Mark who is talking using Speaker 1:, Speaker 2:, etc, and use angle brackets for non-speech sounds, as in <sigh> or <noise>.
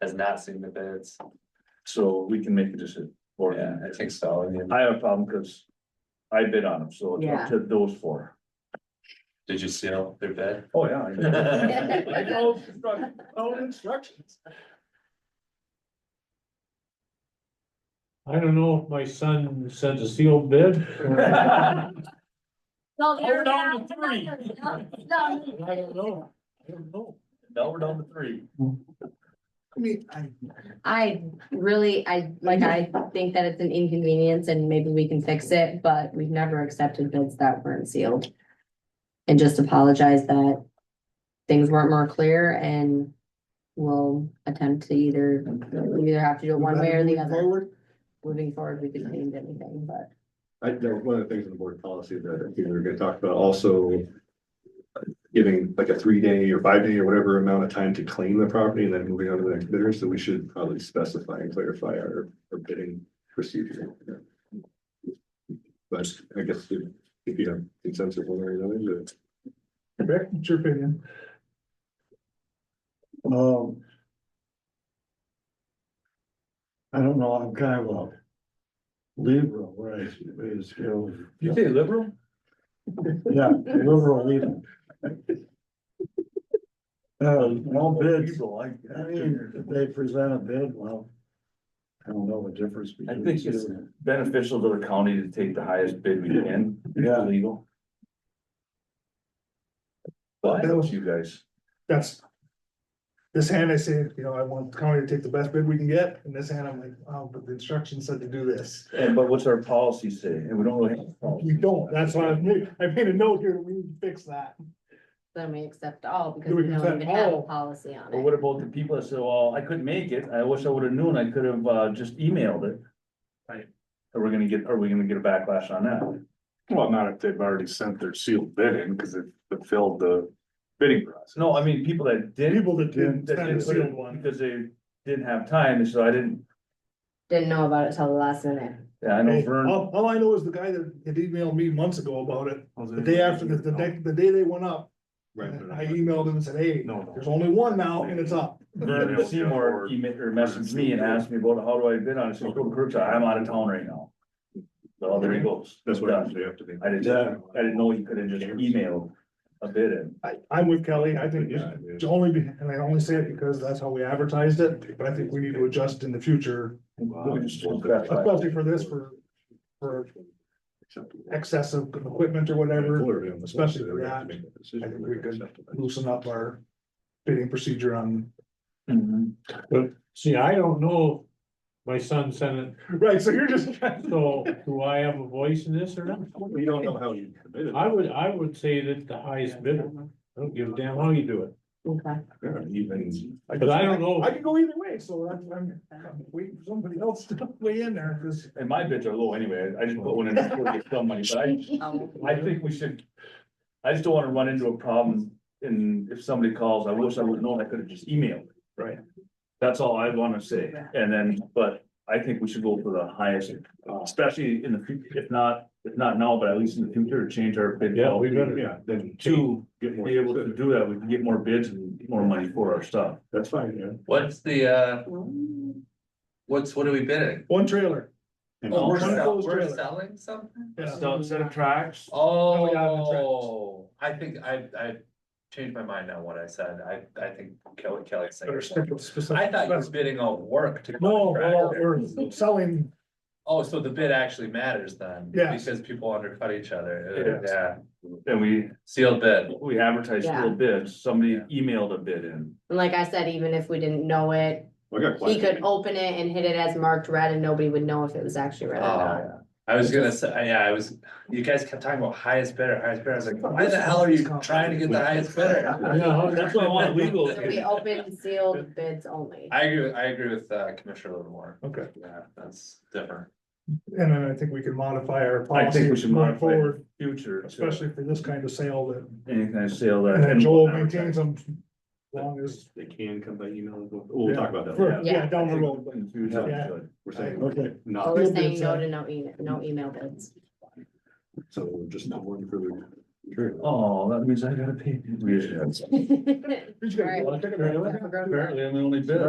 Speaker 1: has not seen the bids.
Speaker 2: so we can make a decision. or-
Speaker 1: Yeah, I think so. I mean,
Speaker 2: I have a problem because I bid on them, so it's
Speaker 3: Yeah.
Speaker 2: up to those four.
Speaker 1: did you seal their bid?
Speaker 2: Oh, yeah. I- I know instruct- know <laughs> instructions.
Speaker 4: I don't know if my son sent a sealed bid.
Speaker 5: No,
Speaker 4: We're
Speaker 5: they're
Speaker 4: down
Speaker 5: not.
Speaker 4: to three. I
Speaker 5: No,
Speaker 4: don't know. I don't know.
Speaker 2: Now we're down to three.
Speaker 6: I mean, I,
Speaker 3: I really, I, like, I think that it's an inconvenience and maybe we can fix it, but we've never accepted bids that weren't sealed. And just apologize that things weren't more clear and we'll attempt to either, we either have to do it one way or the other.
Speaker 6: Forward,
Speaker 3: Moving forward, we can change anything, but.
Speaker 7: I, that was one of the things in the board policy that I think we were gonna talk about also. uh, Giving like a three day or five day or whatever amount of time to claim the property and then moving on to the next bidder, so we should probably specify and clarify our, our bidding procedure. But I guess if if you have consensus one way or another, but
Speaker 6: Rick, what's your opinion? Um. I don't know, I'm kind of a liberal, where I is, you
Speaker 2: You say liberal?
Speaker 6: know, yeah, liberal leader. Uh, all bids,
Speaker 2: Liberal, I
Speaker 6: I mean, if they present a bid, well. I don't know the difference.
Speaker 2: I
Speaker 6: between
Speaker 2: think it's
Speaker 6: two.
Speaker 2: beneficial to the county to take the highest bid we can.
Speaker 6: Yeah.
Speaker 2: Legal. But that was you guys.
Speaker 8: that's. This hand I say, you know, I want the county to take the best bid we can get, and this hand I'm like, oh, but the instructions said to do this.
Speaker 2: And but what's our policy say? And we don't really. have a policy.
Speaker 8: We don't, that's why I made, I made a note here, we need to fix that.
Speaker 3: Then we accept all because
Speaker 8: Do we
Speaker 3: we don't
Speaker 8: accept
Speaker 3: even have a
Speaker 8: all?
Speaker 3: policy on
Speaker 2: But
Speaker 3: it.
Speaker 2: what about the people that said, well, I couldn't make it, I wish I would have known, I could have uh just emailed it.
Speaker 9: Right.
Speaker 2: Are we gonna get, are we gonna get a backlash on that?
Speaker 9: Well, not if they've already sent their sealed bid in, because it fulfilled the bidding process.
Speaker 2: No, I mean, people that didn't.
Speaker 8: People that didn't
Speaker 2: that
Speaker 8: send a
Speaker 2: put it
Speaker 8: sealed one.
Speaker 2: Because they didn't have time, and so I didn't,
Speaker 3: Didn't know about it till the last minute.
Speaker 2: yeah, I know
Speaker 8: Hey,
Speaker 2: Vern.
Speaker 8: All, all I know is the guy that had emailed me months ago about it, the day after, the, the day, the day they went up.
Speaker 7: right, but
Speaker 8: I e- emailed him and said, hey,
Speaker 9: No, no.
Speaker 8: there's only one now and it's up.
Speaker 2: Vern Seymour emailed or messaged me and asked me about how do I bid on it, so go to Kirkside, I'm out of town right now. So there he goes.
Speaker 7: that's what
Speaker 2: Done.
Speaker 7: happens after they.
Speaker 2: I didn't, I didn't know he could have just emailed a bid in.
Speaker 8: I, I'm with Kelly, I think
Speaker 7: Yeah,
Speaker 8: it's
Speaker 7: yeah.
Speaker 8: it's only, be- and I only say it because that's how we advertised it, but I think we need to adjust in the future, especially for this, for, for excessive equipment or whatever, especially for that. I think we could loosen up our bidding procedure on,
Speaker 2: Mm-hmm.
Speaker 4: But see, I don't know. if My son sent it,
Speaker 8: right, so you're <laughs> just.
Speaker 4: so do I have a voice in this or not?
Speaker 7: We don't know how you. bid it.
Speaker 4: I would, I would say that the highest bidder. I don't give a damn how you do it.
Speaker 3: Okay.
Speaker 7: Yeah, Even,
Speaker 4: But I don't know.
Speaker 8: I could go either way, so that's, why I'm, I'm waiting for somebody else to <laughs> weigh in there, because
Speaker 2: And my bids are low anyway, I just put one in for get some money, but I,
Speaker 3: Um,
Speaker 2: I think we should. I just don't wanna run into a problem in, if somebody calls, I wish I would have known, I could have just emailed. it, Right. That's all I wanna say, and then, but I think we should go for the highest, especially in the, fut- if not, if not now, but at least in the future, to change our bid.
Speaker 4: Yeah, we better.
Speaker 7: yeah, then
Speaker 2: To
Speaker 7: get more.
Speaker 2: be able to do that, we can get more bids and more money for our stuff.
Speaker 7: That's fine, yeah.
Speaker 1: What's the, uh, what's, what are we bidding?
Speaker 8: one trailer.
Speaker 7: And
Speaker 8: Oh,
Speaker 1: We're
Speaker 8: One
Speaker 1: sell-
Speaker 8: closed
Speaker 1: we're
Speaker 8: trailer.
Speaker 1: selling something?
Speaker 2: Stuff, set of tracks.
Speaker 1: Oh,
Speaker 8: we got it, right.
Speaker 1: I think I, I changed my mind on what I said. I, I think Kelly, Kelly said.
Speaker 8: Better stick with specific.
Speaker 1: I thought you were bidding on work to.
Speaker 8: No, well,
Speaker 1: contractor.
Speaker 8: we're selling,
Speaker 1: Oh, so the bid actually matters then?
Speaker 8: Yes.
Speaker 1: Because people undercut each other.
Speaker 2: Yes.
Speaker 1: Yeah,
Speaker 2: And we,
Speaker 1: sealed bid.
Speaker 2: we advertised
Speaker 3: Yeah.
Speaker 2: little bids, somebody emailed a bid in.
Speaker 3: And like I said, even if we didn't know it,
Speaker 7: I got
Speaker 3: He could
Speaker 7: quiet.
Speaker 3: open it and hit it as marked red and nobody would know if it was actually red or not.
Speaker 1: Oh, I was gonna say, yeah, I was, you guys kept talking about highest bidder, highest bidder. I was like, why the hell are you trying to get the highest
Speaker 2: <laughs>
Speaker 1: bidder?
Speaker 4: Yeah,
Speaker 2: That's why I want legal.
Speaker 3: So
Speaker 1: <laughs>
Speaker 3: we open sealed bids only.
Speaker 1: I agree, I agree with uh, Commissioner Livermore.
Speaker 8: okay.
Speaker 1: Yeah, that's different.
Speaker 8: And then I think we can modify our
Speaker 2: I
Speaker 8: policy
Speaker 2: think we should
Speaker 8: going
Speaker 2: modify it
Speaker 8: forward,
Speaker 2: in the future, to
Speaker 8: especially for this kind of sale that,
Speaker 2: Any kind of sale that.
Speaker 8: and then Joel maintains them. as Long as,
Speaker 7: They can come by email, and we'll, we'll talk about that.
Speaker 8: for- yeah, down the road,
Speaker 2: In the future,
Speaker 8: Yeah.
Speaker 2: good.
Speaker 7: We're saying
Speaker 8: Okay.
Speaker 3: So
Speaker 7: not,
Speaker 3: we're saying no to no email, no
Speaker 1: <laughs>
Speaker 3: email bids.
Speaker 7: so just not one further. Sure.
Speaker 2: Oh, that means I gotta pay.
Speaker 3: All right.
Speaker 2: Apparently, I'm the only bidder.